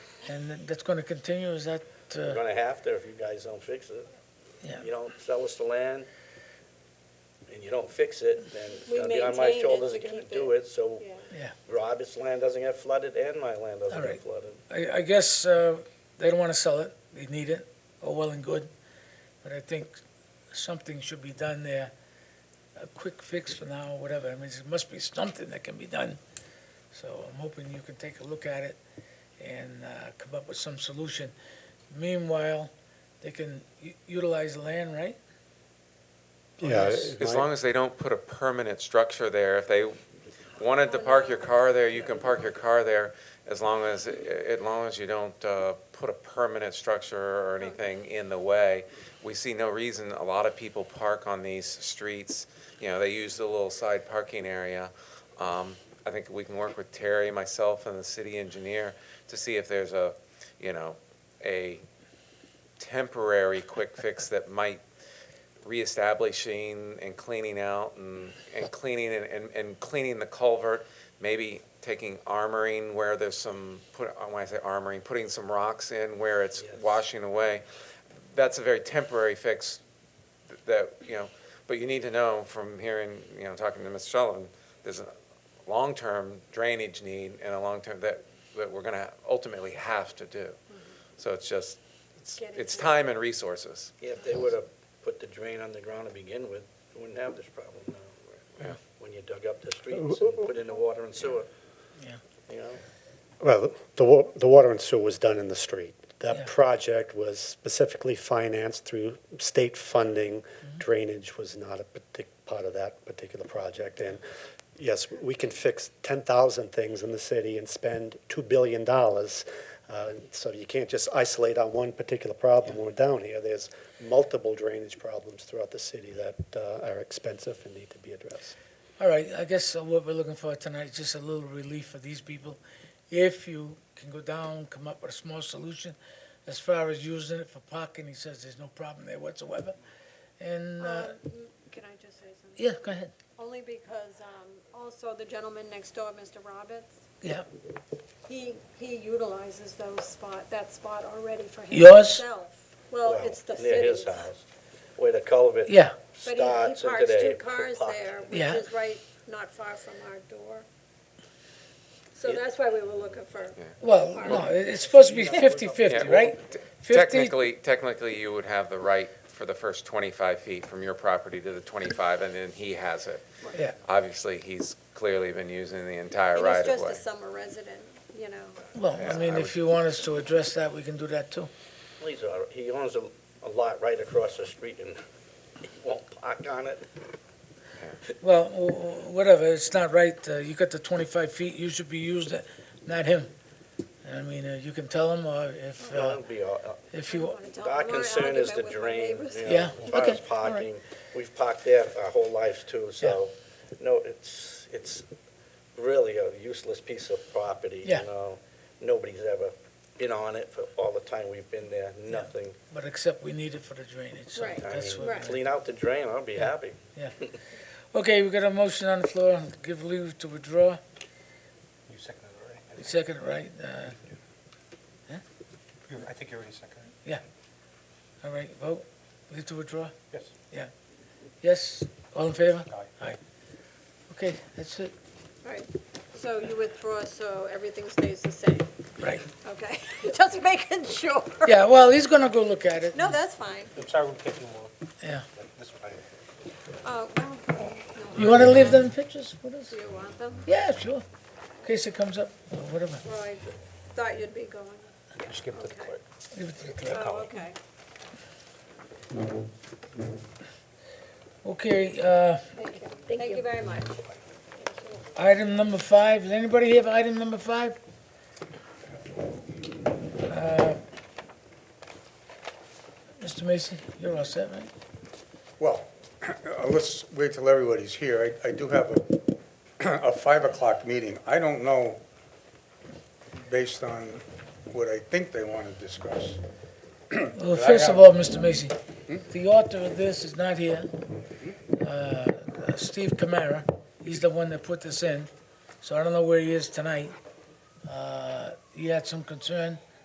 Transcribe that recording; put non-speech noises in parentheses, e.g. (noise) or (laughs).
And that- that's going to continue, is that, We're uh, gonna have to if you guys don't fix it. yeah, You don't sell us the land and you don't fix it, then it's We gonna be on my maintained it shoulders to again to keep do it, so Yeah. Robert's land doesn't get flooded and my land doesn't All get right. flooded. I, I guess uh, they don't want to sell it, they need it, oh, well and good, but I think something should be done there, a quick fix for now, whatever, I mean, there must be something that can be done. So I'm hoping you can take a look at it and uh, come up with some solution. Meanwhile, they can u- utilize the land, right? Yeah, Yes. it As might- long as they don't put a permanent structure there, if they wanted to park your car there, you can park your car there, as long as, as long as you don't uh, put a permanent structure or anything in the way. We see no reason, a lot of people park on these streets, you know, they use the little side parking area. Um, I think we can work with Terry, myself, and the city engineer to see if there's a, you know, a temporary quick fix that might reestablishing and cleaning out and, and cleaning and, and, and cleaning the culvert, maybe taking armoring where there's some, put, when I say armoring, putting some rocks in where it's Yes. washing away. That's a very temporary fix that, you know, but you need to know from hearing, you know, talking to Mr. Sullivan, there's a long-term drainage need and a long-term that, that we're gonna ultimately have to do. So it's just, it's, Getting it's to Mm-hmm. it. time and resources. If they would've put the drain underground to begin with, we wouldn't have this problem now. Yeah. When you dug up the streets and put in the water and sewer. Yeah. You know? Well, the, wa- the water and sewer was done in the street. Yeah. That project was specifically financed through state funding. Drainage was not a partic, part of that particular project. And yes, we can fix ten thousand things in the city and spend two billion dollars. Uh, so you can't just isolate on one particular problem. We're down here. There's multiple drainage problems throughout the city that, uh, are expensive and need to be addressed. All right, I guess uh, what we're looking for tonight is just a little relief for these people. If you can go down, come up with a small solution, as far as using it for parking, he says there's no problem there whatsoever. And, uh, Um, Can I just say something? yeah, go ahead, Only because, um, also the gentleman next door, Mr. Roberts, yeah. he, he utilizes those spot, that spot already for Yours? himself. Well, Well, it's the Near his city's. house, where the culvert Yeah, But he, he starts into parks two the. cars there, which Yeah. is right, not far from our door. So Yeah. that's why we were looking for, well, no, it- it's supposed to be Yeah, fifty-fifty, well, right? te- 50 Technically, technically, you would have the right for the first 25 feet from your property to the 25, and then he has it. Yeah, Obviously, he's clearly been using the entire and he's right of just a way. summer resident, you know. well, I Yeah, mean, I if you want us to address that, we can do that too. He's all right. uh, He owns a, a lot right across the street and he won't park on it. Well, w- w- whatever, it's not right, uh, you got the twenty-five feet, you should be used, it, not him. I mean, uh, you can tell him, or if, uh, It'll be all- if I don't you, wanna tell Our him. My concern is argument the with my drain, neighbors. you know, Yeah, as far okay, as all right. parking. We've parked there our whole lives too, so, no, it's, it's really a useless piece of property, you Yeah. know? Nobody's ever been on it for all the time we've been there, nothing. but except we need it for the drainage, so Right. I that's mean, what. Right. clean out the drain, I'll be happy. Okay, we got a motion on the floor, give leave to withdraw, You seconded it You second it, right, uh, already? You- I think you already seconded it. all right, vote, leave to withdraw, Yes. yes, all in favor? Aye. Okay, that's it, Right, so you withdraw, so everything stays the same, right, okay? (laughs) Just making sure. yeah, well, he's gonna go look at it. No, that's fine. I'm sorry we're taking more. Yeah. Like This one. Uh, well, no, You wanna leave them pictures with us? Do you want them? Yeah, sure, in case it comes up, or whatever, Well, I thought you'd be going. Just give it to the Okay. clerk. give it to the clerk. Oh, okay. Okay, uh, Thank you. Thank you very much. Item number five, does anybody have item number five? Uh, Mr. Macy, you're all set, right? Well, (clears throat) uh, let's wait till everybody's here. I, I do have a, (clears throat) a five o'clock meeting. I don't know, based on what I think they want to discuss. Well, I first of have- all, Mr. Macy, the author of this is not here. Uh, uh, Steve Camara, he's the one that put this in, so I don't know where he is tonight. Uh, He had some concern